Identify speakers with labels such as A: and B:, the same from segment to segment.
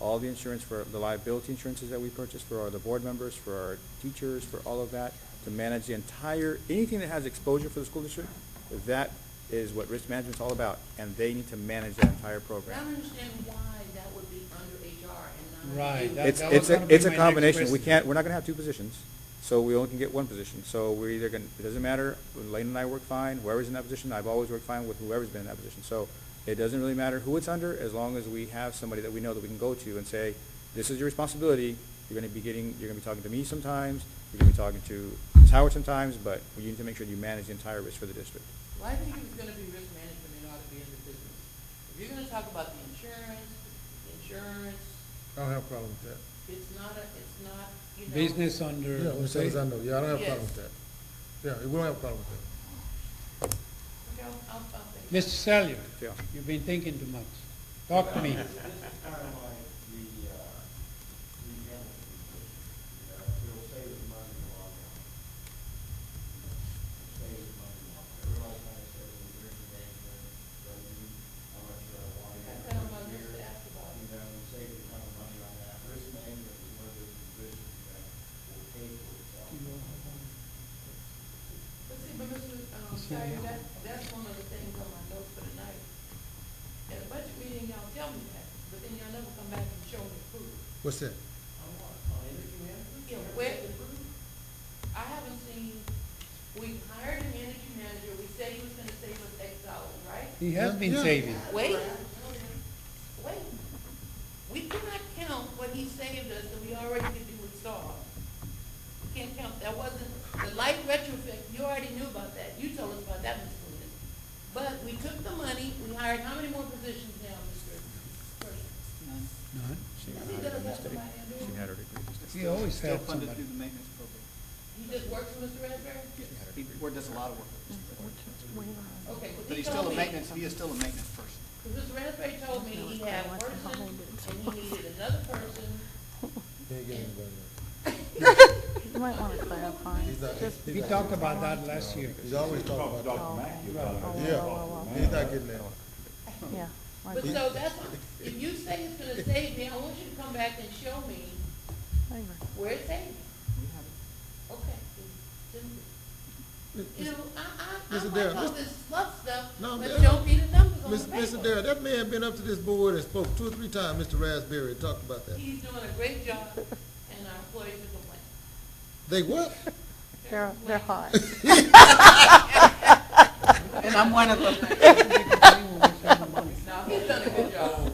A: all the insurance for, the liability insurances that we purchase for our, the board members, for our teachers, for all of that, to manage the entire, anything that has exposure for the school district, that is what risk management's all about, and they need to manage that entire
B: I don't
A: program.
B: understand why that would be under HR and not.
C: Right,
B: you.
C: that-
A: It's,
C: was
A: it's, a-
C: gonna be
A: it's a
C: my next
A: combination, we
C: question.
A: can't, we're not gonna have two positions, so we only can get one position, so we're either gonna, it doesn't matter, Lane and I work fine, whoever's in that position, I've always worked fine with whoever's been in that position, so it doesn't really matter who it's under, as long as we have somebody that we know that we can go to and say, this is your responsibility, you're gonna be getting, you're gonna be talking to me sometimes, you're gonna be talking to Ms. Howard sometimes, but you need to make sure you manage the entire risk for the district.
B: Well, I think if it's gonna be risk management, it ought to be under business. If you're gonna talk about the insurance, insurance,
D: I don't have a problem with that.
B: it's not a, it's not, you know.
C: Business under.
D: Yeah, Mr. Alexander, yeah, I don't have a problem with
B: Yes.
D: that. Yeah, we don't have a problem with that.
B: Okay, I'll, I'll, I'll think.
C: Mr. Salyer,
A: Yeah.
C: you've been thinking too much. Talk to me.
E: This is kind of like the, uh, the animal condition. You know, We'll save the money in the long run. Save the money in the long run. Everybody's kind of says, well, we're in the game, but you, how much uh, do I want?
B: I found my list to ask about.
E: You know, we save a ton of money on that. Risk management is one of those positions that will pay for
B: But
E: itself.
B: see, but Mr. Um, Sawyer, that, that's one of the things on my notes for tonight. At a budget meeting, y'all tell me that, but then y'all never come back and show me proof.
D: What's that?
E: On what? On energy management?
B: Yeah, where, I haven't seen, we hired an energy manager, we said he was gonna save us X dollars, right?
C: He has
D: Yeah,
C: been
D: yeah.
C: saving.
B: Wait, wait. We cannot count what he saved us that we already could do with STAR. We can't count, that wasn't, the light retrofit, you already knew about that. You told us about that, Mr. Coonan. But we took the money, we hired how many more positions now, Mr. Pershing?
C: None?
A: She
B: He
A: had
B: does
A: her
B: have
A: degree.
B: somebody in there.
A: She had her degree this day.
C: He always
F: Still
C: had
F: funded
C: somebody.
F: through the maintenance program.
B: He just works for Mr. Raspberry?
F: Yes, he wor- does a lot of work.
B: Okay, 'cause
F: But
B: he
F: he's still
B: told
F: a
B: me.
F: maintenance, he is still a maintenance person.
B: Because Mr. Raspberry told me he had a person and he needed another person.
D: Can't get anybody
G: You might want to clarify.
D: else.
G: Just-
D: He's not-
C: We
D: he's not-
C: talked about that last year.
D: He's always talking about that.
G: Oh, okay. Oh,
D: Yeah, he's not getting that.
G: oh, oh, Yeah. like
B: But
G: that.
B: so that's, if you say it's gonna save me, I want you to come back and show me
G: I agree.
B: where it's saving.
F: We have it.
B: Okay. then- You know, I, I, I
D: Mr.
B: like
D: Darrell,
B: all
D: Mr.
B: this fluff stuff,
D: No,
B: but
D: Mr.
B: show me the numbers on the
D: Miss- Mr. Darrell,
B: paper.
D: that man been up to this board and spoke two or three times, Mr. Raspberry, and talked about that.
B: He's doing a great job and our employees are complaining.
D: They what?
G: They're, they're hot.
F: And I'm one of them.
B: No, he's done a good job.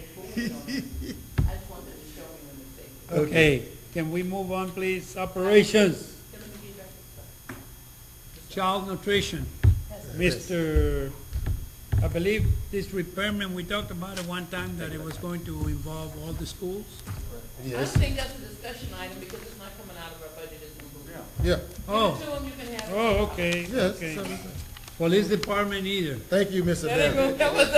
B: I just wanted to show me when it's saving.
C: okay. Can we move on, please? Operations,
B: Then let me get back to stuff.
C: child nutrition. Mr., I believe this repairment, we talked about it one time, that it was going to involve all the schools?
B: I don't think that's a discussion item because it's not coming out of our budget as a group.
D: Yeah,
C: Oh,
B: Give it to him, you can have it.
C: oh, okay,
D: yes.
C: okay. Police department either.
D: Thank you, Mr.
B: That ain't gonna,
D: Darrell.
B: that was a,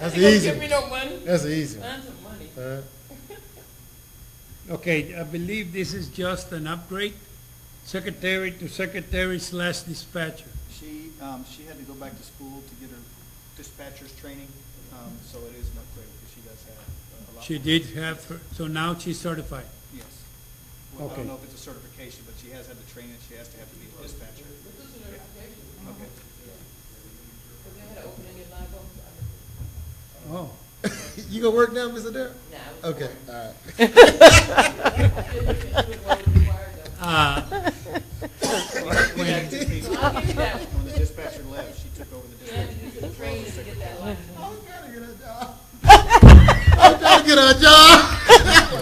D: That's
B: they gonna
D: easy.
B: give me no money.
D: That's easy. one.
B: Tons of money.
D: Uh,
C: Okay, I believe this is just an upgrade, secretary to secretary slash dispatcher.
F: She, um, she had to go back to school to get her dispatcher's training, um, so it is an upgrade because she does have a lot.
C: She
F: more-
C: did have, her- so now she's certified.
F: Yes. Well, I
C: Okay.
F: don't know if it's a certification, but she has had the training, she has to have to be a dispatcher. Yeah. Okay.
B: Because they had an opening in Live Oak.
C: Oh,
D: You gonna work now, Mr. Darrell?
B: Nah,
D: Okay, all right.
B: it was what was required though.
C: uh,
F: We had two people.
B: I'll give you that one.
F: When the dispatcher left, she took over the
B: You had
F: dispatcher.
B: to do some training to get that license.
D: Trying to get a job.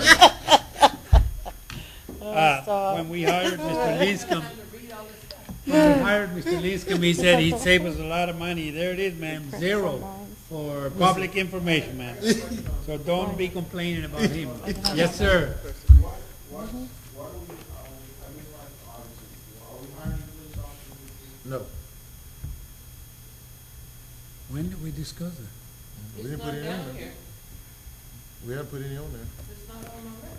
C: uh, when we hired Mr. Linscomb,
B: Time to read all this stuff.
C: when we hired Mr. Linscomb, he said he'd save us a lot of money. There it is, ma'am, zero for public information, ma'am. So don't be complaining about him. Yes, sir.
E: Why, why, why do we, are we, I mean, like, obviously, are we hiring police officers?
D: No,
C: When did we discuss it?
D: we didn't
B: It's
D: put
B: not
D: it in
B: down
D: there.
B: here.
D: We haven't put any on there.
B: It's not on my record.